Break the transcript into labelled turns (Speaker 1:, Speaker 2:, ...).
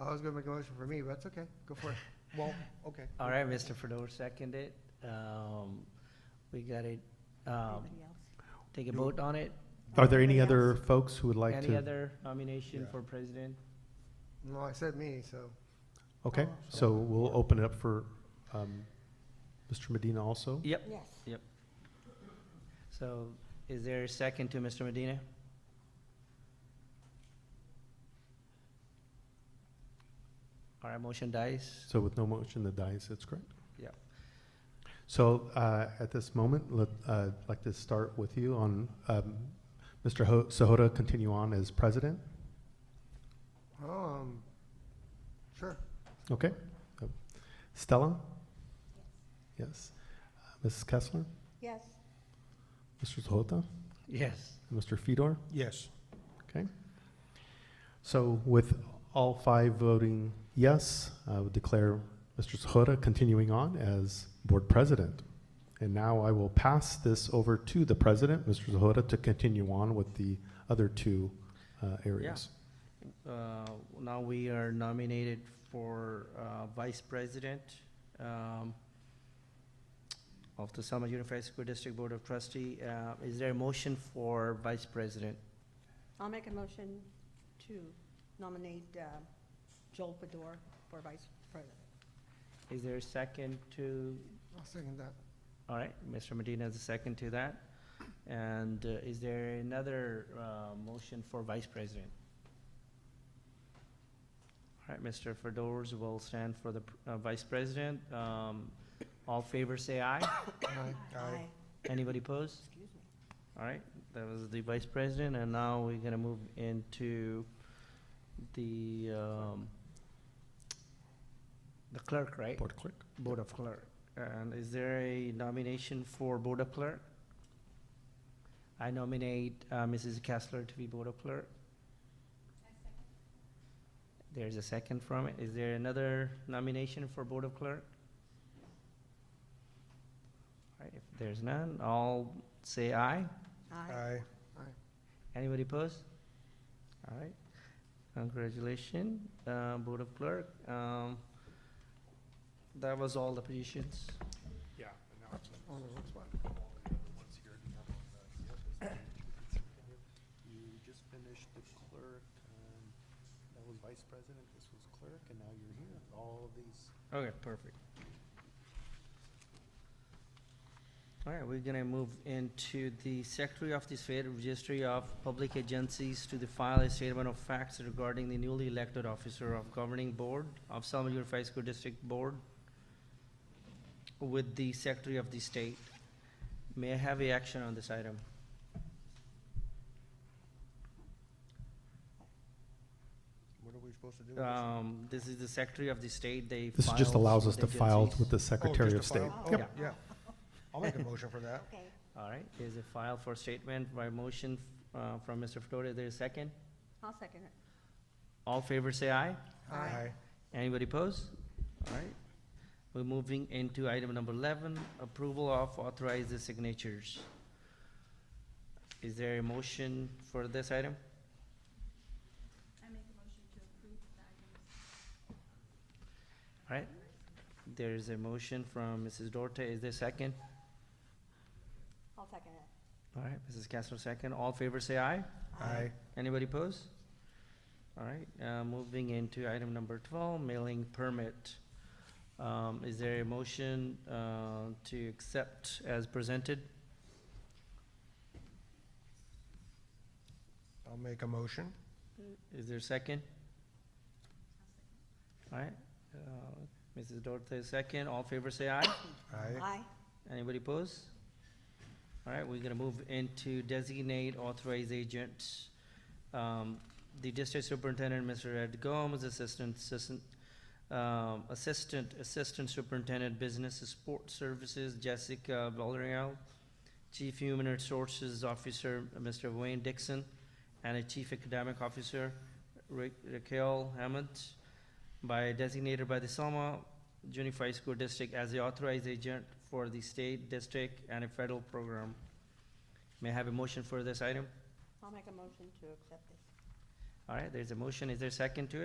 Speaker 1: Oh, I was gonna make a motion for me, but that's okay, go for it. Well, okay.
Speaker 2: All right, Mr. Fedor seconded. Um, we got it, um,
Speaker 3: Anybody else?
Speaker 2: take a vote on it.
Speaker 4: Are there any
Speaker 3: Anybody
Speaker 4: other
Speaker 3: else?
Speaker 4: folks who would like
Speaker 2: Any
Speaker 4: to?
Speaker 2: other nomination
Speaker 1: Yeah.
Speaker 2: for president?
Speaker 1: No, I said me, so,
Speaker 4: Okay,
Speaker 3: Oh.
Speaker 4: so we'll open it up for um, Mr. Medina also.
Speaker 2: Yep,
Speaker 3: Yes.
Speaker 2: so is there a second to Mr. Medina? All right, motion dies.
Speaker 4: So with no motion, the dice, that's correct?
Speaker 2: Yeah.
Speaker 4: So uh, at this moment, let- uh, I'd like to start with you on, um, Mr. Ho- Sahota continue on as president.
Speaker 1: um, sure.
Speaker 4: Okay. Uh, Stella? Yes. Uh, Mrs. Kessler?
Speaker 3: Yes.
Speaker 4: Mr. Sahota?
Speaker 2: Yes.
Speaker 4: Mr. Fedor?
Speaker 5: Yes.
Speaker 4: Okay. So with all five voting yes, I would declare Mr. Sahota continuing on as board president. And now I will pass this over to the president, Mr. Sahota, to continue on with the other two uh, areas.
Speaker 2: Uh, Now we are nominated for uh, Vice President um, of the Selma Unified School District Board of Trustee. Uh, Is there a motion for Vice President?
Speaker 3: I'll make a motion to nominate uh, Joel Fedor for vice president.
Speaker 2: Is there a second to,
Speaker 1: I'll second that.
Speaker 2: all right, Mr. Medina is a second to that. And uh, is there another uh, motion for Vice President? All right, Mr. Fedors will stand for the pr- uh, Vice President. Um, All favor say aye.
Speaker 1: Aye.
Speaker 5: Aye.
Speaker 2: Anybody opposed?
Speaker 3: Excuse me.
Speaker 2: All right, that was the vice president, and now we're gonna move into the, um, the clerk, right?
Speaker 4: Board clerk?
Speaker 2: Board of Clerk. And is there a nomination for Board of Clerk? I nominate uh, Mrs. Kessler to be Board of Clerk. There's a second from it. Is there another nomination for Board of Clerk? All right, if there's none, I'll say aye.
Speaker 5: Aye.
Speaker 3: Aye.
Speaker 2: Anybody opposed? All right, congratulations, uh, Board of Clerk. Um, That was all the positions.
Speaker 5: Yeah.
Speaker 1: All in one spot.
Speaker 5: You just finished the clerk, um, that was vice president, this was clerk, and now you're here, all of these.
Speaker 2: Okay, perfect. All right, we're gonna move into the Secretary of the State Registry of Public Agencies to the file a statement of facts regarding the newly elected officer of governing board of Selma Unified School District Board with the Secretary of the State. May I have a action on this item?
Speaker 5: What are we supposed to do? with this?
Speaker 2: Um, this is the Secretary of the State, they
Speaker 4: This just
Speaker 2: files
Speaker 4: allows us
Speaker 2: with
Speaker 4: to file
Speaker 2: agencies.
Speaker 4: with the
Speaker 5: Oh, just
Speaker 4: Secretary
Speaker 5: to
Speaker 4: of State.
Speaker 5: file?
Speaker 4: Yep.
Speaker 5: Oh, yeah, I'll make a motion for that.
Speaker 3: Okay.
Speaker 2: All right, there's a file for statement by motion, uh, from Mr. Fedora, Is there a second?
Speaker 3: I'll second it.
Speaker 2: All favor say aye.
Speaker 3: Aye.
Speaker 2: Anybody pose? All right. We're moving into item number eleven, approval of authorized signatures. Is there a motion for this item? I make a motion to approve the items. All right. There's a motion from Mrs. Dorte. Is there a second?
Speaker 3: I'll second it.
Speaker 2: All right, Mrs. Castro, second. All favor say aye.
Speaker 5: Aye.
Speaker 2: Anybody pose? All right, uh, moving into item number twelve, mailing permit. Um, is there a motion, uh, to accept as presented?
Speaker 5: I'll make a motion.
Speaker 2: Is there a second? All right, uh, Mrs. Dorte, second. All favor say aye.
Speaker 5: Aye.
Speaker 3: Aye.
Speaker 2: Anybody pose? All right, we're gonna move into designate authorized agent. Um, the district superintendent, Mr. Ed Gomes, assistant, assistant, um, assistant, assistant superintendent, business and support services, Jessica Villarreal, chief human resources officer, Mr. Wayne Dixon, and a chief academic officer, Ra- Raquel Hammond, by designated by the Selma Unified School District as the authorized agent for the state, district, and a federal program. May I have a motion for this item?
Speaker 3: I'll make a motion to accept this.
Speaker 2: All right, there's a motion. Is there a second to it?